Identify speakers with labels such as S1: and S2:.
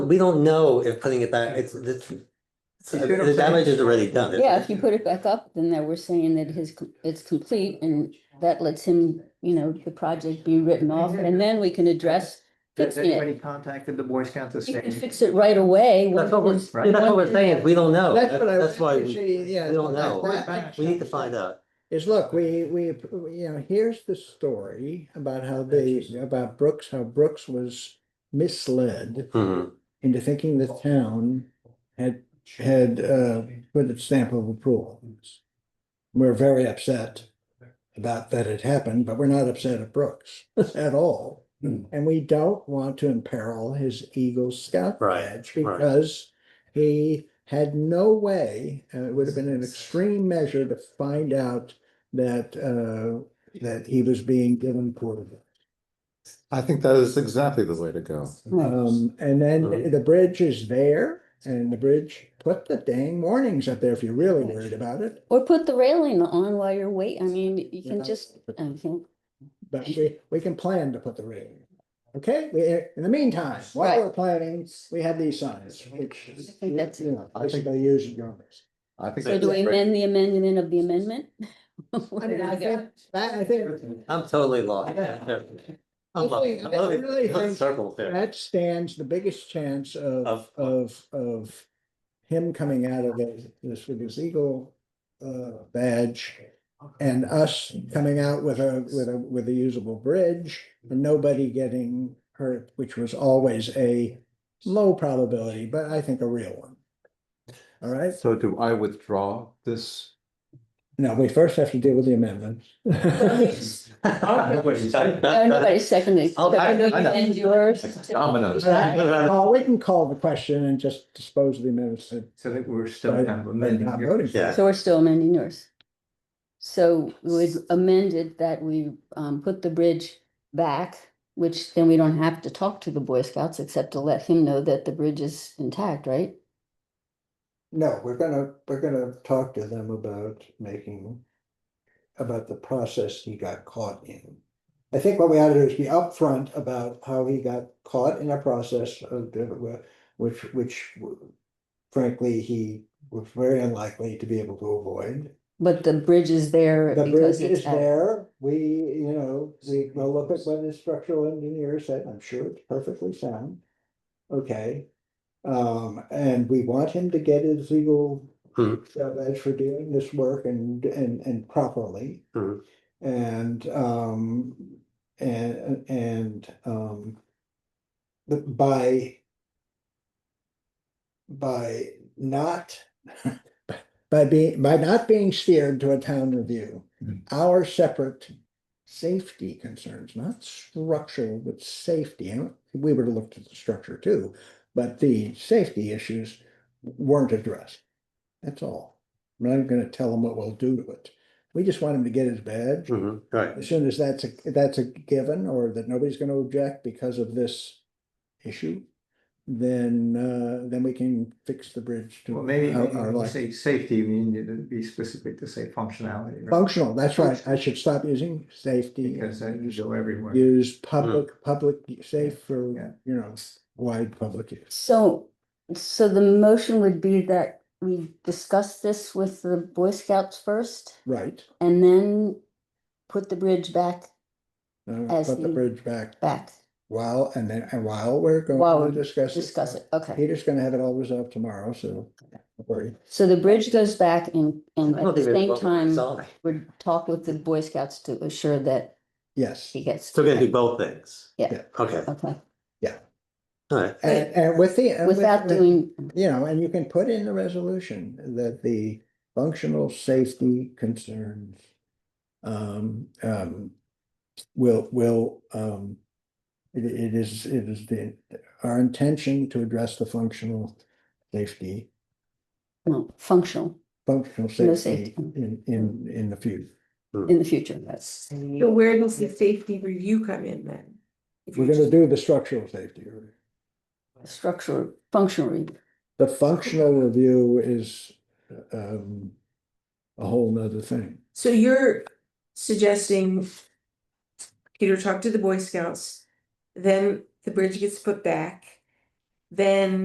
S1: we don't know if putting it back, it's, it's, it's-
S2: If you don't
S1: the damage
S2: put it-
S1: is already done.
S3: Yeah, if you put it back up, then they were saying that his, com- it's complete and that lets him, you know, the project be written off and then we can address
S2: Has
S3: fixing it.
S2: anybody contacted the Boy Scouts of
S3: He can
S2: State?
S3: fix it right away. once
S1: That's what we're,
S3: it's-
S1: that's what we're saying, is we don't know.
S4: That's
S1: That's
S4: what I
S1: that's
S4: was
S1: why, we
S4: actually, yeah.
S1: we don't know.
S4: that- that-
S1: we need to find out.
S4: Is look, we, we, you know, here's the story about how they, about Brooks, how Brooks was misled
S1: Mhm.
S4: into thinking the town had, had, uh, put its stamp of approval. We're very upset about that it happened, but we're not upset at Brooks at all.
S1: Hmm.
S4: And we don't want to imperil his Eagle Scout
S1: Right,
S4: badge
S1: right.
S4: because he had no way, and it would have been an extreme measure to find out that, uh, that he was being given poor advice.
S5: I think that is exactly the way to go.
S4: Um, and then
S1: Mhm.
S4: the bridge is there and the bridge, put the dang warnings up there if you're really worried about it.
S3: Or put the railing on while you're waiting. I mean, you
S4: Yeah.
S3: can just, I think,
S4: But we, we can plan to put the railing. Okay, we, in the meantime, while we're planning, we have these signs, which.
S3: I think that's-
S4: you know, Basically use your numbers.
S5: I think.
S3: so do we amend the amendment of the amendment?
S4: I mean, I think, that, I think
S1: I'm totally lost.
S2: Yeah.
S1: I'm lost.
S4: Really,
S1: I'm lost.
S4: really
S1: I'm in
S4: think-
S1: circles there.
S4: that stands the biggest chance of,
S1: Of-
S4: of, of him coming out of this, this with his eagle uh, badge and us coming out with a, with a, with a usable bridge and nobody getting hurt, which was always a low probability, but I think a real one. All right,
S5: So do I withdraw this?
S4: now we first have to deal with the amendments.
S3: No, nobody seconded.
S1: Uh, I'll- I-
S3: Seconded
S5: I know.
S3: and yours.
S5: Dominoes.
S4: Oh, we can call the question and just dispose of the amendments.
S2: So that we're still
S4: But-
S2: kind of
S4: but
S2: amending
S4: not
S2: your-
S4: voting for it.
S1: Yeah.
S3: So we're still amending yours. So we would amend it that we um put the bridge back, which then we don't have to talk to the Boy Scouts except to let him know that the bridge is intact, right?
S4: No, we're gonna, we're gonna talk to them about making, about the process he got caught in. I think what we ought to do is be upfront about how he got caught in a process of, the- which, which frankly, he was very unlikely to be able to avoid.
S3: But the bridge is there
S4: The bridge
S3: because
S4: is
S3: it's at-
S4: there, we, you know, we will look at what the structural engineer said, I'm sure it's perfectly sound. Okay, um, and we want him to get his legal.
S1: Mhm.
S4: uh, As for doing this work and, and, and properly.
S1: Mhm.
S4: And, um, and, and, um. the- By. By not by being, by not being steered to a town review, our separate safety concerns, not structural, but safety, and we would have looked at the structure too, but the safety issues weren't addressed. That's all. I'm not gonna tell him what we'll do to it. We just want him to get his badge.
S1: Mhm, Right.
S4: As soon as that's, a that's a given, or that nobody's gonna object because of this issue, then, uh, then we can fix the bridge to
S2: Well, maybe
S4: our-
S2: maybe
S4: our
S2: when you
S4: liking.
S2: say safety, you mean you didn't be specific to say functionality. right?
S4: Functional, that's right. I should stop using safety.
S2: Because that
S4: and
S2: you go everywhere.
S4: Use public, public, safe for,
S2: Yeah.
S4: you know, wide public use.
S3: So, so the motion would be that we discuss this with the Boy Scouts first
S4: Right.
S3: and then put the bridge back,
S4: Uh,
S3: As
S4: Put the
S3: the-
S4: bridge back
S3: back,
S4: while, and then, and while we're
S3: While
S4: going to
S3: we're
S4: discuss.
S3: discuss it, okay.
S4: Peter's gonna have it all resolved tomorrow, so. don't worry.
S3: So the bridge goes back and,
S1: I
S3: and
S1: don't
S3: at the
S1: think it's both.
S3: same time.
S1: Sorry.
S3: would talk with the Boy Scouts to assure that
S4: Yes.
S3: he gets.
S1: So we're gonna do both things.
S3: Yeah.
S4: Yeah.
S1: Okay,
S3: Okay,
S1: all right.
S4: And, and with the. and with-
S3: without
S4: with-
S3: doing,
S4: You know, and you can put in the resolution that the functional safety concerns. Um, um, will, will, um. It, it is, it is the, our intention to address the functional safety,
S3: no, functional
S4: functional
S3: No
S4: safety
S3: safety.
S4: in, in, in the future.
S3: in the future, that's.
S6: So where does the safety review come in then? If
S4: We're
S6: you're
S4: gonna do the structural safety. review.
S3: Structure, functional,
S4: The functional review is, um, a whole nother thing.
S6: just- So you're suggesting Peter talk to the Boy Scouts, then the bridge gets put back, then